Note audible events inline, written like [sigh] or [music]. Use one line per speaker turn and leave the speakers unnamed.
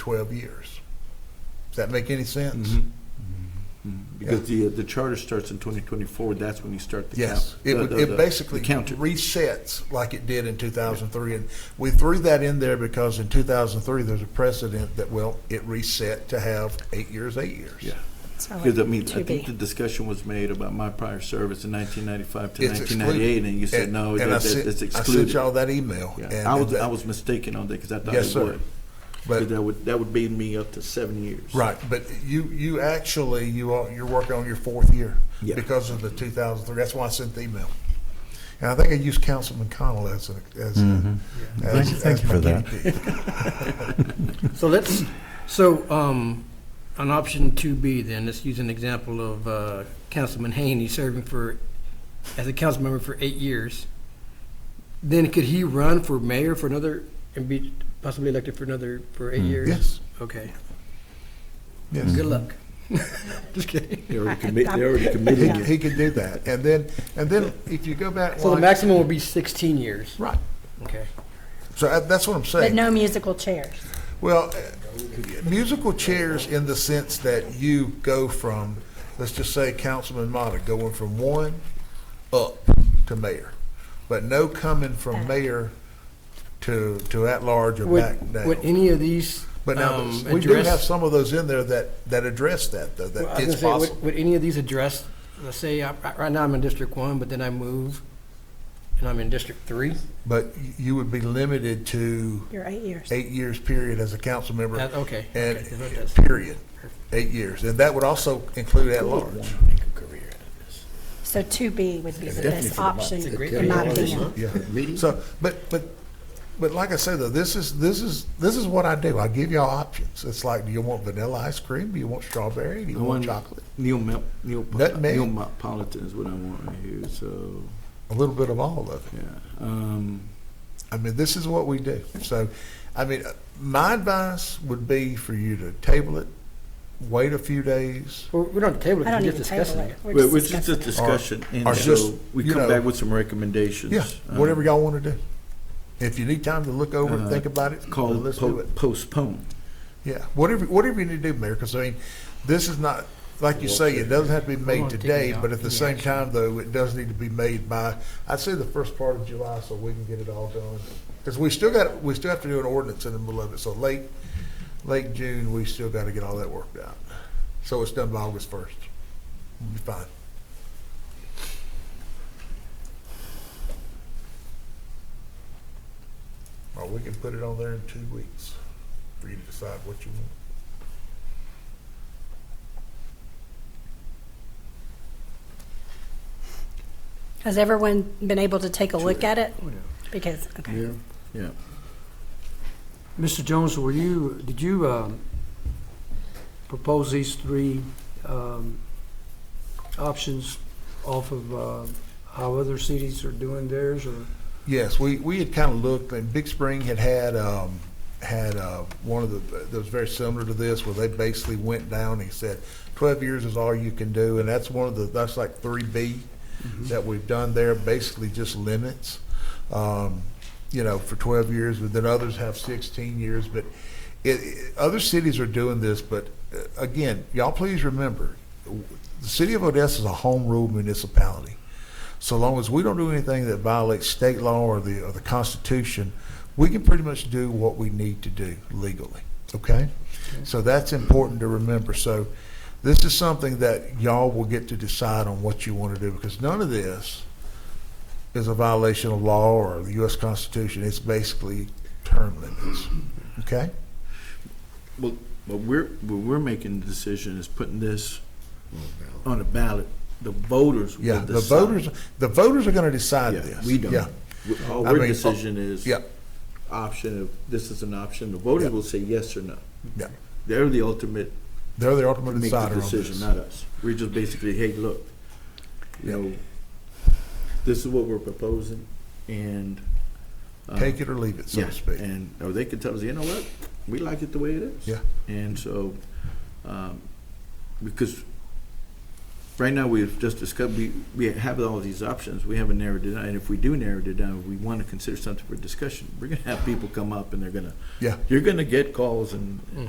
12 years. Does that make any sense?
Mm-hmm.
Mm-hmm.
Because the, uh, the charter starts in 2024, that's when you start the count.
Yes, it,
the-
would,
the-
it
the-
basically
the counter.
resets like it did in 2003, and we threw that in there because in 2003 there's a precedent that well it reset to have eight years, eight years.
Yeah,
So
because I
like
mean, I
Oh, to
think the
be.
discussion was made about my prior service in 1995 to
It's
1998,
excluded.
and you said,
And-
no,
and
that-
I
that-
sent-
it's
I sent
excluded.
y'all that email.
Yeah,
and-
I was,
and that-
I was mistaken on that, because I thought
Yes,
it
sir.
would.
but-
Because that would, that would beat me up to seven years.
Right, but you, you actually, you are, you're working on your fourth year
Yeah.
because of the two thousand three, that's why I sent the email. And I think I used Councilman Connell as a, as. a- as-
Mm. Thank you- thank
as
you for
my
that.
guinea pig.
So let's, so, um, on option two B then, let's use an example of, uh, Councilman Haney serving for, as a council member for eight years. Then could he run for mayor for another, and be possibly elected for another, for eight years?
Mm, Yes,
Okay,
yes.
good luck. [laughs] Just kidding.
They already commi- they already
He,
committed it.
he could do that, and then, and then if you go back
So the
like,
maximum would be sixteen years,
right,
okay?
so I- that's what I'm saying.
But no musical chairs.
Well, uh, musical chairs in the sense that you go from, let's just say Councilman Mata, going from one up to mayor. But no coming from mayor to, to at-large or
Would-
back down.
Would any of these,
But now,
um,
we do have
address?
some of those in there that, that address that, though,
Well,
that
I was
it's
gonna say,
possible.
would, would any of these address, let's say, I- I- right now I'm in District One, but then I move, and I'm in District Three?
But y- you would be limited to
You're eight years.
eight years period as a council member.
That- okay,
And,
okay, that's what it is.
period, eight years. And that would also include at-large.
So two B would be the
Definitely
best
for the month.
option,
It's a great
in my
idea.
opinion.
Yeah.
Meeting?
So, but, but, but like I said, though, this is, this is, this is what I do. I give y'all options. It's like, do you want vanilla ice cream? Do you want strawberry? Do you
I
want
want-
chocolate?
Neil Mel, Neil,
Nutmeg.
Neil Politan is what I want right here, so,
A little bit of all of it.
yeah. Um,
I mean, this is what we do. So, I mean, uh, my advice would be for you to table it, wait a few days.
Well, we don't table it,
I don't
we're
need
just
to table
discussing
it.
it.
We're
Well,
just
it's just a
discussing.
discussion,
or
and
just,
so we
you know,
come back with some recommendations. um,
Yeah, whatever y'all want to do. If you need time to look over and
uh,
think about it,
Called
let's do it.
postpone.
Yeah, whatever, whatever you need to do, Mayor, because I mean, this is not, like you say, it doesn't have to be made
gonna take
today,
it out.
but at the same
Yeah.
time, though, it does need to be made by, I'd say the first part of July, so we can get it all done. Because we still got, we still have to do an ordinance in the middle of it, so late, late June, we still got to get all that worked out. So it's done by August first. We'll be fine. Or we can put it on there in two weeks for you to decide what you want.
Has everyone been able to take a look at it? Because, okay.
Yeah.
Mr. Jones, were you, did you um, propose these three um, options off of uh, how other cities are doing theirs, or?
Yes, we, we had kind of looked, and Big Spring had had, um, had, uh, one of the, that was very similar to this, where they basically went down and said, twelve years is all you can do, and that's one of the, that's like three B that we've done there, basically just limits, um, you know, for twelve years, but then others have sixteen years, but it, it, other cities are doing this, but uh, again, y'all please remember, w- the city of Odessa is a home rule municipality. So long as we don't do anything that violates state law or the, or the Constitution, we can pretty much do what we need to do legally, okay? So that's important to remember. So this is something that y'all will get to decide on what you want to do, because none of this is a violation of law or the U.S. Constitution. It's basically term limits, okay?
Well, what we're, what we're making the decision is putting this on the ballot. The voters will
Yeah,
decide.
the voters, the voters are going to decide
Yeah,
this.
we don't.
Yeah,
We- All
I
our
mean,
decision is.
yeah.
Option of, this is an option. The voters
Yeah.
will say yes or no.
Yeah.
They're the ultimate,
They're the ultimate
make the
decider on this.
decision, not us. We're just basically, hey, look, you
Yeah.
know, this is what we're proposing and. uh,
Take it or leave it, so
Yeah,
to speak.
And, or they could tell us, you know what, we like it the way it is.
Yeah.
And so, um, because right now we've just discussed, we, we have all these options, we haven't narrowed it down. And if we do narrow it down, we want to consider something for discussion. We're gonna have people come up and they're gonna,
Yeah.
you're gonna get calls and,